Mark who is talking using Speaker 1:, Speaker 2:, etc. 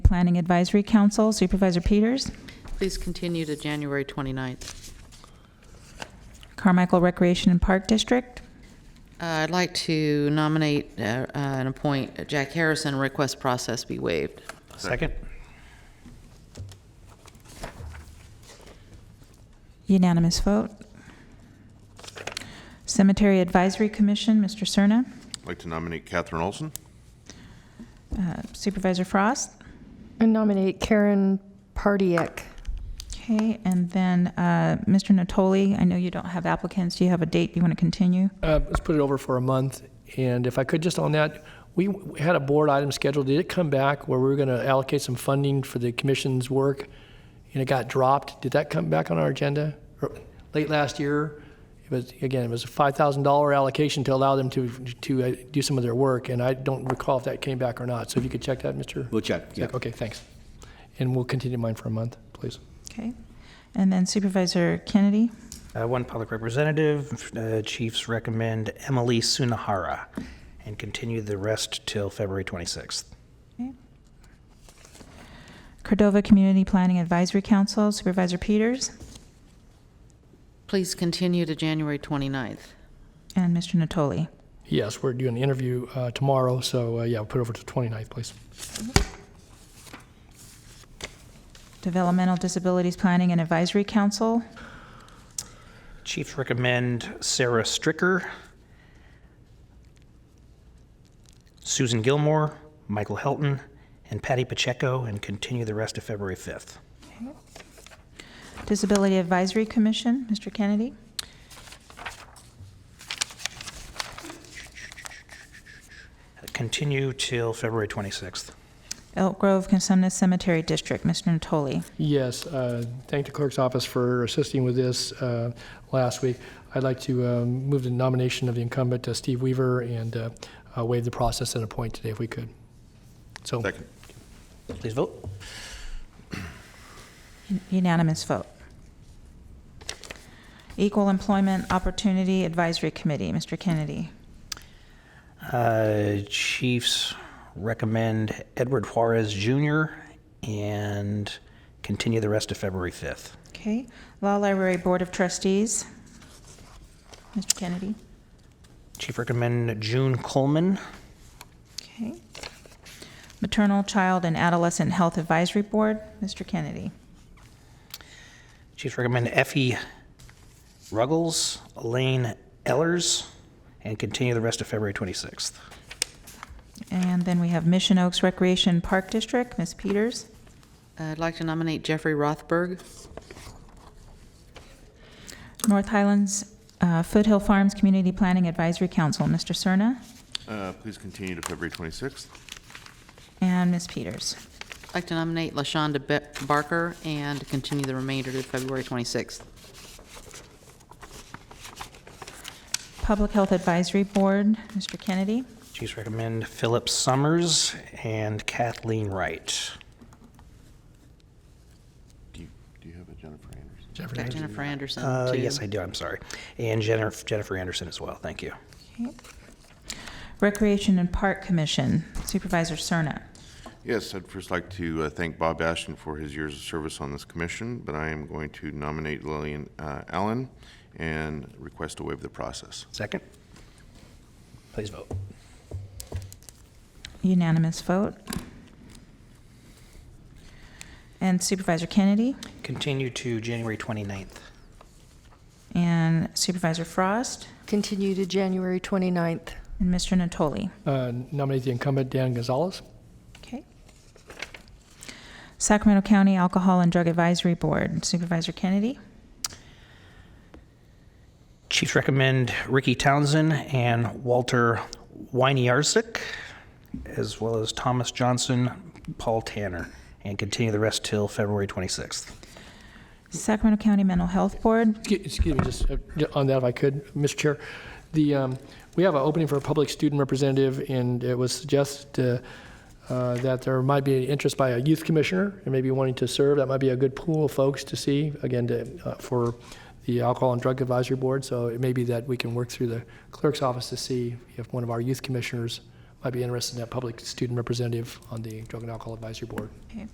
Speaker 1: Planning Advisory Council. Supervisor Peters.
Speaker 2: Please continue to January 29th.
Speaker 1: Carmichael Recreation and Park District.
Speaker 2: Uh, I'd like to nominate uh, uh, and appoint Jack Harrison, request process be waived.
Speaker 3: Second.
Speaker 1: Unanimous vote. Cemetery Advisory Commission, Mr. Cerna.
Speaker 4: I'd like to nominate Catherine Olson.
Speaker 1: Uh, Supervisor Frost.
Speaker 5: I nominate Karen Pardiek.
Speaker 1: Okay, and then uh, Mr. Natoli, I know you don't have applicants. Do you have a date you want to continue?
Speaker 3: Uh, Let's put it over for a month, and if I could, just on that, we we had a board item scheduled, did it come back where we were going to allocate some funding for the commission's work, and it got dropped? Did that come back on our agenda? Or- Late last year, it was, again, it was a $5,000 allocation to allow them to, to uh, do some of their work, and I don't recall if that came back or not, so if you could check that, Mr.?
Speaker 6: We'll check, yeah.
Speaker 3: Okay, thanks. And we'll continue mine for a month, please.
Speaker 1: Okay. And then Supervisor Kennedy.
Speaker 7: Uh, One public representative, uh, chiefs recommend Emily Sunahara, and continue the rest till February 26th.
Speaker 1: Okay. Cordova Community Planning Advisory Council, Supervisor Peters
Speaker 2: Please continue to January 29th.
Speaker 1: and Mr. Natoli.
Speaker 3: Yes, we're doing the interview uh, tomorrow, so uh, yeah, we'll put it over to 29th, please.
Speaker 1: Developmental Disabilities Planning and Advisory Council.
Speaker 7: Chiefs recommend Sarah Stricker, Susan Gilmore, Michael Helton, and Patty Pacheco, and continue the rest of February 5th.
Speaker 1: Disability Advisory Commission, Mr. Kennedy.
Speaker 7: Continue till February 26th.
Speaker 1: Elk Grove Consumnes Cemetery District, Mr. Natoli.
Speaker 3: Yes, uh, thank the clerk's office for assisting with this uh, last week. I'd like to um, move the nomination of the incumbent, uh, Steve Weaver, and uh, uh, waive the process and appoint today if we could. So,
Speaker 4: Second.
Speaker 7: Please vote.
Speaker 1: Unanimous vote. Equal Employment Opportunity Advisory Committee, Mr. Kennedy.
Speaker 7: Uh, Chiefs recommend Edward Juarez Jr. and continue the rest of February 5th.
Speaker 1: Okay. Law Library Board of Trustees, Mr. Kennedy.
Speaker 7: Chief recommend June Coleman.
Speaker 1: Okay. Maternal, Child, and Adolescent Health Advisory Board, Mr. Kennedy.
Speaker 7: Chiefs recommend Effie Ruggles, Elaine Ellers, and continue the rest of February 26th.
Speaker 1: And then we have Mission Oaks Recreation Park District, Ms. Peters.
Speaker 2: Uh, I'd like to nominate Jeffrey Rothberg.
Speaker 1: North Highlands uh, Foothill Farms Community Planning Advisory Council, Mr. Cerna
Speaker 4: Uh, Please continue to February 26th.
Speaker 1: and Ms. Peters.
Speaker 2: I'd like to nominate LaShonda Be- Barker and continue the remainder to February 26th.
Speaker 1: Public Health Advisory Board, Mr. Kennedy.
Speaker 7: Chiefs recommend Philip Summers and Kathleen Wright.
Speaker 4: Do you do you have a Jennifer Anderson?
Speaker 3: Jeffrey,
Speaker 2: Got Jennifer Anderson,
Speaker 7: Uh,
Speaker 2: too.
Speaker 7: yes, I do, I'm sorry. And Jennifer Jennifer Anderson as well, thank you.
Speaker 1: Okay. Recreation and Park Commission, Supervisor Cerna.
Speaker 4: Yes, I'd first like to uh, thank Bob Ashton for his years of service on this commission, but I am going to nominate Lillian uh, Allen and request to waive the process.
Speaker 7: Second? Please vote.
Speaker 1: Unanimous vote. And Supervisor Kennedy
Speaker 7: Continue to January 29th.
Speaker 1: and Supervisor Frost
Speaker 5: Continue to January 29th.
Speaker 1: and Mr. Natoli.
Speaker 3: uh, nominate the incumbent, Dan Gonzalez.
Speaker 1: Okay. Sacramento County Alcohol and Drug Advisory Board Supervisor Kennedy
Speaker 7: Chiefs recommend Ricky Townsend and Walter Wyniarsik, as well as Thomas Johnson, Paul Tanner, and continue the rest till February 26th.
Speaker 1: Sacramento County Mental Health Board,
Speaker 3: Excuse excuse me, just uh, ju- on that if I could, Mr. Chair. The, um, we have an opening for a public student representative, and it was suggested uh, uh, that there might be interest by a youth commissioner and maybe wanting to serve. That might be a good pool of folks to see, again, to, uh, for the Alcohol and Drug Advisory Board. So it may be that we can work through the clerk's office to see if one of our youth commissioners might be interested in that public student representative on the Drug and Alcohol Advisory Board.